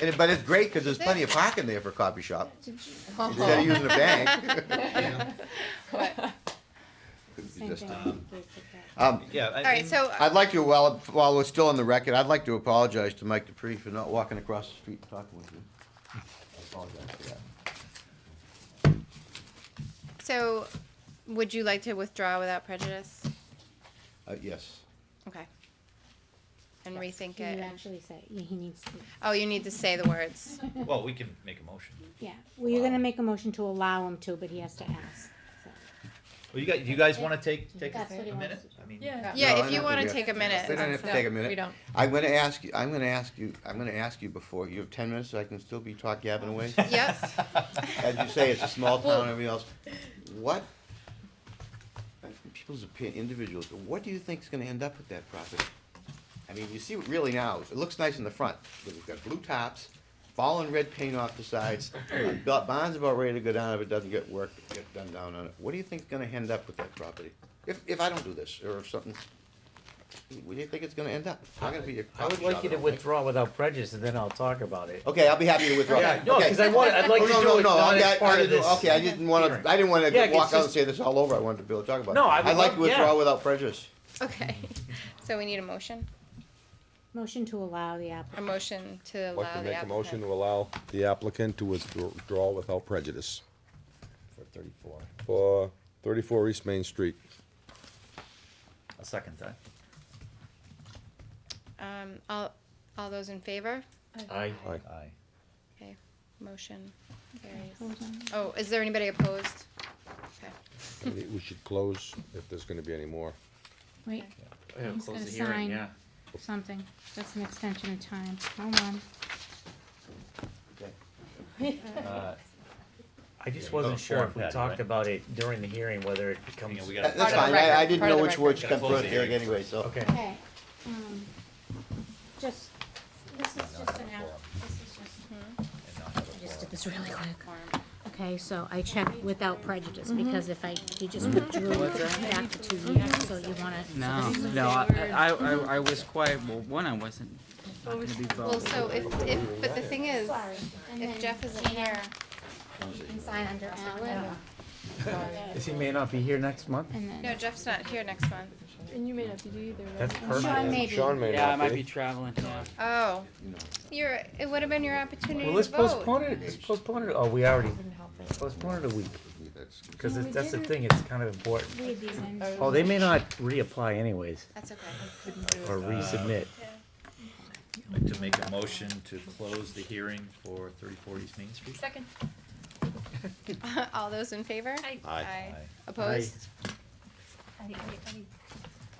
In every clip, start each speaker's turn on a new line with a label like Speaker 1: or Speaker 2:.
Speaker 1: And it, but it's great because there's plenty of parking there for a coffee shop. Instead of using a bank. You just- uh, Um,
Speaker 2: Yeah. All
Speaker 3: right, so uh,
Speaker 1: I'd like to, while, while we're still on the record, I'd like to apologize to Mike Dupree for not walking across the street and talking with you. I apologize for that.
Speaker 3: so would you like to withdraw without prejudice?
Speaker 1: Uh, yes.
Speaker 3: Okay. And rethink
Speaker 4: You
Speaker 3: it. and-
Speaker 4: actually say, yeah, he needs to,
Speaker 3: Oh, you need to say the words.
Speaker 2: Well, we can make a motion.
Speaker 4: yeah, well, you're gonna
Speaker 2: Wow.
Speaker 4: make a motion to allow him to, but he has to ask, so.
Speaker 2: Well, you guys, you guys want to take take
Speaker 4: That's what he
Speaker 2: a minute?
Speaker 4: wants.
Speaker 2: I mean,
Speaker 5: Yeah.
Speaker 3: Yeah,
Speaker 1: No, I
Speaker 3: if you
Speaker 1: don't
Speaker 3: want to
Speaker 1: think we
Speaker 3: take a minute.
Speaker 1: We don't have to
Speaker 5: No,
Speaker 1: take a
Speaker 5: We
Speaker 1: minute.
Speaker 5: don't.
Speaker 1: I'm gonna ask you, I'm gonna ask you, I'm gonna ask you before, you have ten minutes, so I can still be talk gabbing away?
Speaker 3: Yep.
Speaker 1: As you say, it's a small town and everything else. What, people's opinion, individuals, what do you think's gonna end up with that property? I mean, you see it really now, it looks nice in the front, but we've got blue tops, fallen red paint off the sides. uh, Ba- Bond's about ready to go down if it doesn't get work, get done down on it. What do you think's gonna end up with that property? If, if I don't do this, or if something, what do you think it's gonna end up? It's not gonna be a
Speaker 6: I would
Speaker 1: coffee
Speaker 6: like
Speaker 1: shop,
Speaker 6: you
Speaker 1: I
Speaker 6: to
Speaker 1: don't think.
Speaker 6: withdraw without prejudice, and then I'll talk about it.
Speaker 1: Okay, I'll be happy to withdraw.
Speaker 6: Yeah, no,
Speaker 1: Okay.
Speaker 6: because I want, I'd like
Speaker 1: Oh,
Speaker 6: to
Speaker 1: no,
Speaker 6: do
Speaker 1: no,
Speaker 6: it
Speaker 1: no,
Speaker 6: not
Speaker 1: I,
Speaker 6: as
Speaker 1: I, I
Speaker 6: part of
Speaker 1: didn't,
Speaker 6: this.
Speaker 1: okay, I didn't wanna,
Speaker 6: hearing.
Speaker 1: I didn't wanna
Speaker 6: Yeah, 'cause
Speaker 1: walk out and
Speaker 6: just-
Speaker 1: say this all over, I wanted to be able to talk about it.
Speaker 6: No, I would
Speaker 1: like
Speaker 6: love-
Speaker 1: to withdraw
Speaker 6: yeah.
Speaker 1: without prejudice.
Speaker 3: Okay. So we need a motion.
Speaker 4: Motion to allow the
Speaker 3: A
Speaker 4: applicant,
Speaker 3: motion to
Speaker 7: I'd like
Speaker 3: allow
Speaker 7: to
Speaker 3: the
Speaker 7: make a motion
Speaker 3: applicant.
Speaker 7: to allow the applicant to withdraw without prejudice
Speaker 2: for thirty-four,
Speaker 7: for thirty-four East Main Street.
Speaker 2: I'll second that.
Speaker 3: Um, all, all those in favor?
Speaker 6: I,
Speaker 7: Aye.
Speaker 2: Aye.
Speaker 3: Okay, motion carries. Oh, is there anybody opposed? Okay.
Speaker 7: And it- We should close if there's gonna be any more.
Speaker 4: wait, He's
Speaker 6: close
Speaker 4: gonna
Speaker 6: the hearing,
Speaker 4: sign.
Speaker 6: yeah.
Speaker 4: something, that's an extension of time, hold on.
Speaker 6: Uh, I just
Speaker 2: Uh, Go
Speaker 6: wasn't sure
Speaker 2: forward,
Speaker 6: if we
Speaker 2: Patty,
Speaker 6: talked
Speaker 2: right?
Speaker 6: about it during the hearing, whether it becomes.
Speaker 2: Hang on, we gotta-
Speaker 1: That- That's
Speaker 3: Part of the
Speaker 1: fine, I, I
Speaker 3: record,
Speaker 1: didn't
Speaker 3: part of
Speaker 1: know
Speaker 3: the
Speaker 1: which words
Speaker 3: record.
Speaker 1: come
Speaker 2: Gotta close
Speaker 1: first
Speaker 2: the
Speaker 1: here
Speaker 2: hearing
Speaker 1: anyway, so.
Speaker 6: Okay.
Speaker 4: Okay, um, just, this is just an app, this is just.
Speaker 2: And not have a
Speaker 4: I just
Speaker 2: quorum.
Speaker 4: did this really quick. Okay, so I checked without prejudice, because if I, he just withdrew it back to two years, so you wanna.
Speaker 8: No, no, I, I, I- I was quiet, well, one, I wasn't not gonna be
Speaker 3: Well,
Speaker 8: voting.
Speaker 3: so if, if, but the thing is,
Speaker 4: Sorry, and then
Speaker 3: if Jeff isn't
Speaker 4: Gina,
Speaker 3: here,
Speaker 4: You can sign under Alan,
Speaker 6: Because he may not be here next month.
Speaker 4: and then.
Speaker 3: no, Jeff's not here next month.
Speaker 5: And you may not be either, right?
Speaker 6: That's
Speaker 4: Sean
Speaker 6: permanent.
Speaker 4: may be.
Speaker 7: Sean may
Speaker 8: Yeah, I
Speaker 7: not
Speaker 8: might be
Speaker 7: be.
Speaker 8: traveling, yeah.
Speaker 3: Oh, you're, it would have been your opportunity to
Speaker 6: Well,
Speaker 3: vote.
Speaker 6: let's postpone it, let's postpone it, oh, we already postponed it a week, because
Speaker 4: No, we
Speaker 6: that's the
Speaker 4: didn't.
Speaker 6: thing, it's kind of important.
Speaker 4: Read these in.
Speaker 6: Oh, they may not reapply anyways,
Speaker 3: That's okay.
Speaker 6: or resubmit.
Speaker 2: I'd Like to make a motion to close the hearing for thirty-four East Main Street?
Speaker 5: Second.
Speaker 3: All those in favor?
Speaker 5: Aye.
Speaker 7: Aye.
Speaker 2: Aye.
Speaker 3: Opposed?
Speaker 5: I- I- I-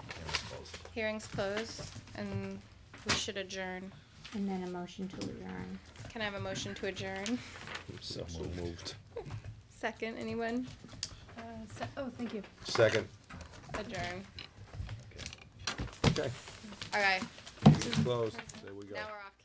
Speaker 2: Hearing's closed.
Speaker 3: Hearing's closed, and we should adjourn.
Speaker 4: And then a motion to adjourn.
Speaker 3: Can I have a motion to adjourn?
Speaker 7: So moved.
Speaker 3: Second, anyone?
Speaker 5: uh, se- Oh, thank you.
Speaker 7: Second.
Speaker 3: Adjourn.
Speaker 7: Okay.
Speaker 3: All right,
Speaker 7: Closed. There we go.
Speaker 3: now we're off